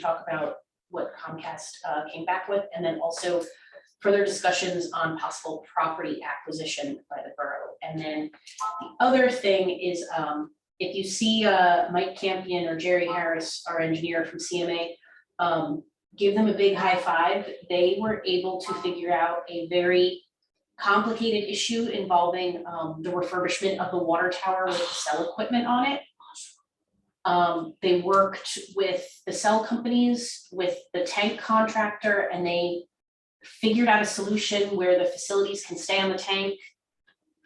talk about what Comcast uh, came back with, and then also further discussions on possible property acquisition by the borough. And then the other thing is, um, if you see uh, Mike Campion or Jerry Harris, our engineer from CMA, um, give them a big high five. They were able to figure out a very complicated issue involving um, the refurbishment of the water tower with the cell equipment on it. Um, they worked with the cell companies, with the tank contractor, and they figured out a solution where the facilities can stay on the tank.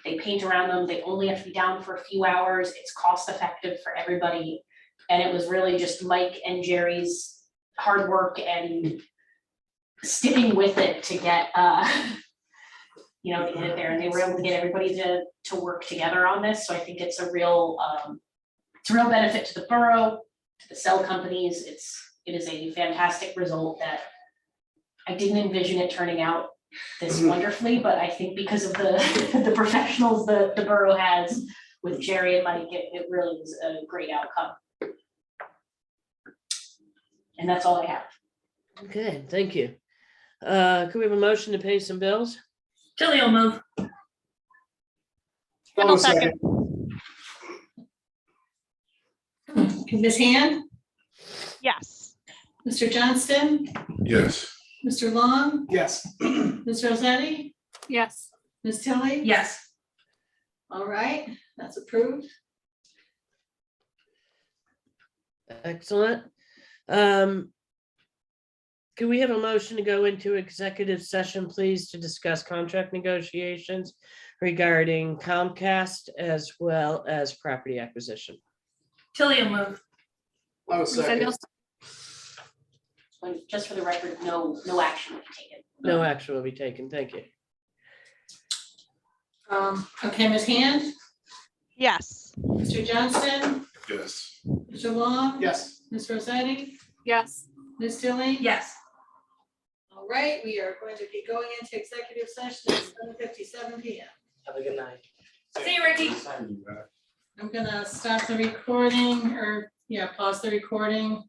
They paint around them, they only have to be down for a few hours, it's cost effective for everybody. And it was really just Mike and Jerry's hard work and sticking with it to get, uh, you know, to get it there, and they were able to get everybody to, to work together on this, so I think it's a real, um, it's a real benefit to the borough, to the cell companies, it's, it is a fantastic result that I didn't envision it turning out this wonderfully, but I think because of the, the professionals the, the borough has with Jerry and Mike, it, it really was a great outcome. And that's all I have. Okay, thank you. Uh, could we have a motion to pay some bills? Tilly will move. I'll second. Ms. Hand, Yes. Mr. Johnston, Yes. Mr. Long, Yes. Ms. Rosetti, Yes. Ms. Tilly? Yes. All right, that's approved. Excellent. Um, could we have a motion to go into executive session, please, to discuss contract negotiations regarding Comcast as well as property acquisition? Tilly will move. I was second. When- just for the record, no, no action will be taken. No action will be taken. Thank you. Um, okay, Ms. Hand, Yes. Mr. Johnston, Yes. Mr. Long? Yes. Ms. Rosetti, Yes. Ms. Tilly? Yes. All right, we are going to be going into executive session at seven fifty-seven P M. Have a good night. See you, Ricky. I'm gonna stop the recording or, yeah, pause the recording.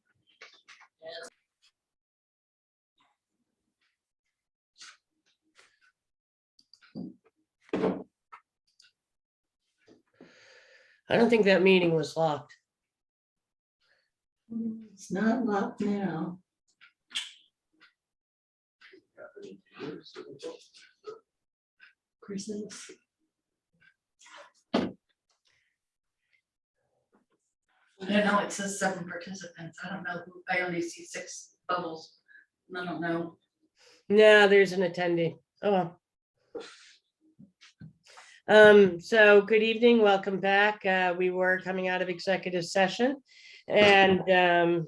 I don't think that meeting was locked. It's not locked now. Christmas. I don't know, it says seven participants, I don't know, who I only see six bubbles, I don't know. No, there's an attendee. Oh. well. Um, so good evening, welcome back. Uh, we were coming out of executive session and, um,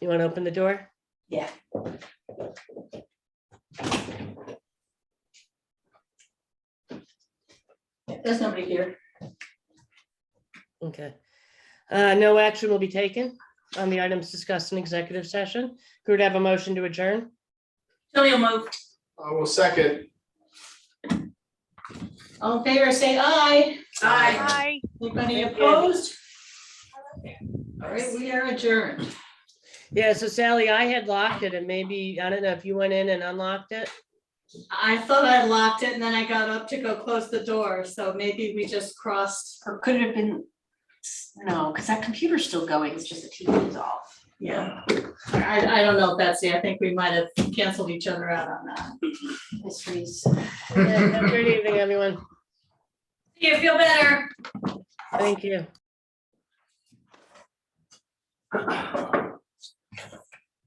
you want to open the door? Yeah. There's nobody here. Okay. Uh, no action will be taken on the items discussed in executive session. Could I have a motion to adjourn? Tilly will move. I will second. All in favor, say aye. Aye. Hi. Anybody Thank you. opposed? All right, we are adjourned. Yeah, so Sally, I had locked it and maybe, I don't know if you went in and unlocked it. I thought I locked it and then I got up to go close the door, so maybe we just crossed. Or could it have been, no, because that computer's still going, it's just the TV is off. Yeah. I, I don't know, Betsy, I think we might have canceled each other out on that. Mysteries. Yeah, have a Good evening, everyone. You feel better? Thank you.